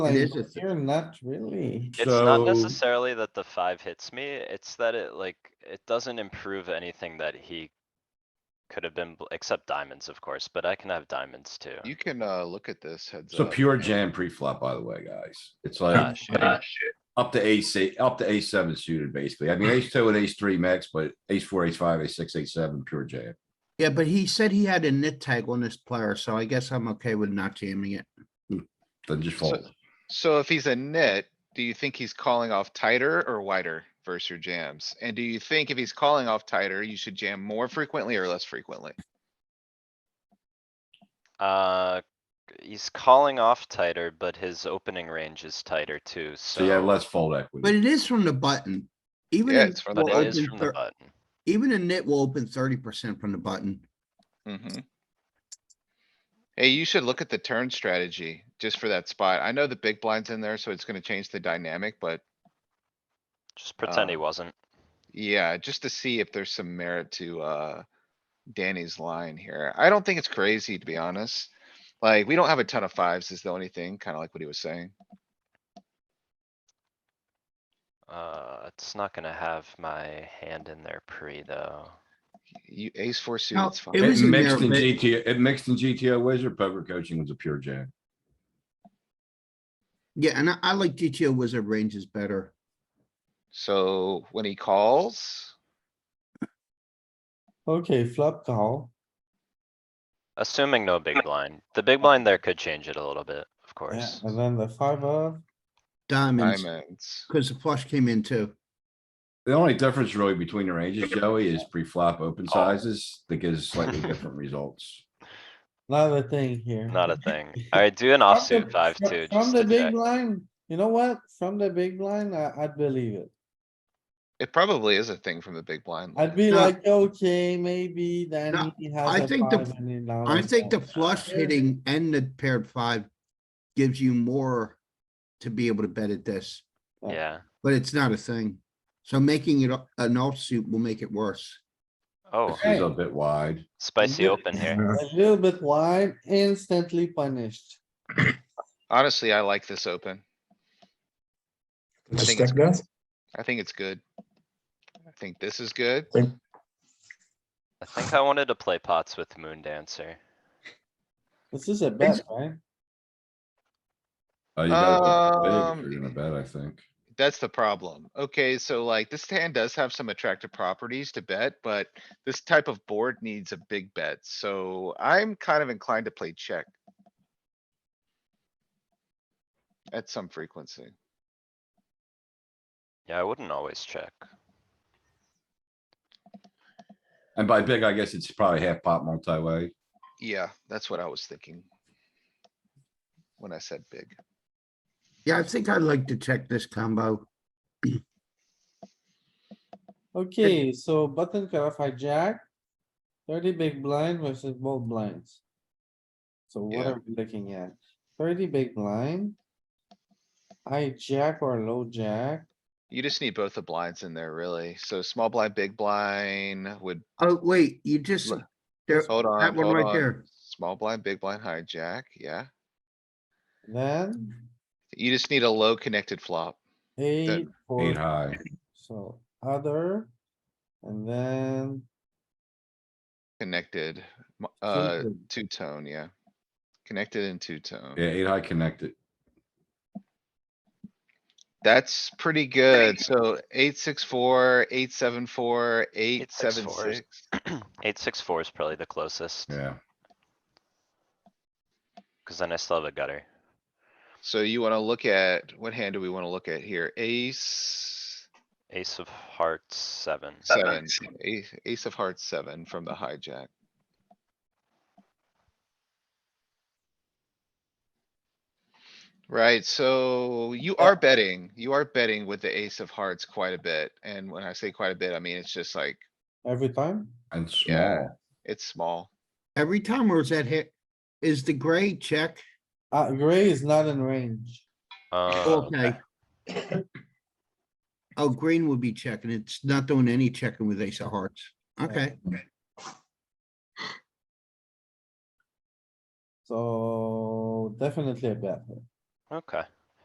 Like, is a th- you're not really. It's not So- necessarily that the five hits me, it's that it like, it doesn't improve anything that he. Could have been, bl- except diamonds, of course, but I can have diamonds too. You can, uh, look at this heads It's a up. pure jam pre-flop, by the way, guys. It's like Gosh, uh, up to ace, eight- up to ace seven suited, basically. I mean, ace two and ace three max, but ace four, ace five, ace six, ace seven, pure jam. Yeah, but he said he had a nit tag on this player, so I guess I'm okay with not jamming it. Then just fold. So if he's a nit, do you think he's calling off tighter or wider versus your jams? And do you think if he's calling off tighter, you should jam more frequently or less frequently? Uh, he's calling off tighter, but his opening range is tighter too, So yeah, so. let's fold But equity. it is from the button. Even Yeah, a it's nit from the will But it is open from the thir- button. Even a nit will open thirty percent from the button. Mm-hmm. Hey, you should look at the turn strategy just for that spot. I know the big blind's in there, so it's gonna change the dynamic, but Just pretend he Um, wasn't. yeah, just to see if there's some merit to, uh, Danny's line here. I don't think it's crazy, to be honest. Like, we don't have a ton of fives is the only thing, kinda like what he was saying. Uh, it's not gonna have my hand in there pre though. You ace four suited, No, it's it fine. was It in there, mixed in but- GTO, it mixed in GTO wizard poker coaching was a pure jam. Yeah, and I, I like GTO wizard ranges better. So when he calls, Okay, flop call. Assuming no big blind. The big blind there could change it a little bit, of Yeah, course. and then the five of, Diamonds, diamonds. because the flush came in too. The only difference really between the ranges, Joey, is pre-flop open sizes that gives slightly different results. not a thing here. Not a thing. Alright, do From an the- offsuit five fro- two, From just the to big check. blind, you know what? From the big blind, I, I'd believe it. It probably is a thing from the big blind. I'd be No. like, okay, maybe then he has I a think the- five and he now I has think the Oh, that. flush hitting and the paired five gives you more to be able to bet at this, blind. Yeah. but it's not a thing. So making it a- an offsuit will make it worse. Oh, This is a bit wide. spicy Yeah. open here. A little bit wide, instantly punished. Honestly, I like this open. I think it's, I think it's good. I think this is good. I think I wanted to play pots with Moon Dancer. This is a bet, right? Uh, you gotta go big if you're gonna Um, bet, I think. That's the problem. Okay, so like this hand does have some attractive properties to bet, but this type of board needs a big bet, so I'm kind of inclined to play check. At some frequency. Yeah, I wouldn't always check. And by big, I guess it's probably half pot multi-way. Yeah, that's what I was thinking. When I said big. Yeah, I think I'd like to check this combo. Okay, so button cutoff hijack. Thirty big blind versus both blinds. So what Yeah. are we looking at? Thirty big blind. Hijack or low jack, You just need both the blinds in there, really. So small blind, big blind would, Oh, wait, you just, Look, there, hold on, Uh, that one hold right on. there. Small blind, big blind hijack, yeah. then You just need a low connected flop. eight, Eight four, high. so other. And then Connected, m- uh, Two-tone. two tone, yeah. Connected and two tone. Yeah, eight high connected. That's pretty good. So eight, six, four, eight, seven, four, eight, Eight, six, seven, four is- six. Eight, six, four is probably the closest, Yeah. cause then I still have a gutter. So you wanna look at, what hand do we wanna look at here? Ace, Ace of hearts, seven. seven, ace, ace of hearts, seven from the hijack. Right, so you are betting, you are betting with the ace of hearts quite a bit, and when I say quite a bit, I mean, it's just like, every time, And Yeah. small. it's small. Every time or is that hit, is the gray check? uh, gray is not in range. Uh, Okay. Oh, green would be checking. It's not doing any checking with ace of hearts. Okay, So definitely a bet. okay.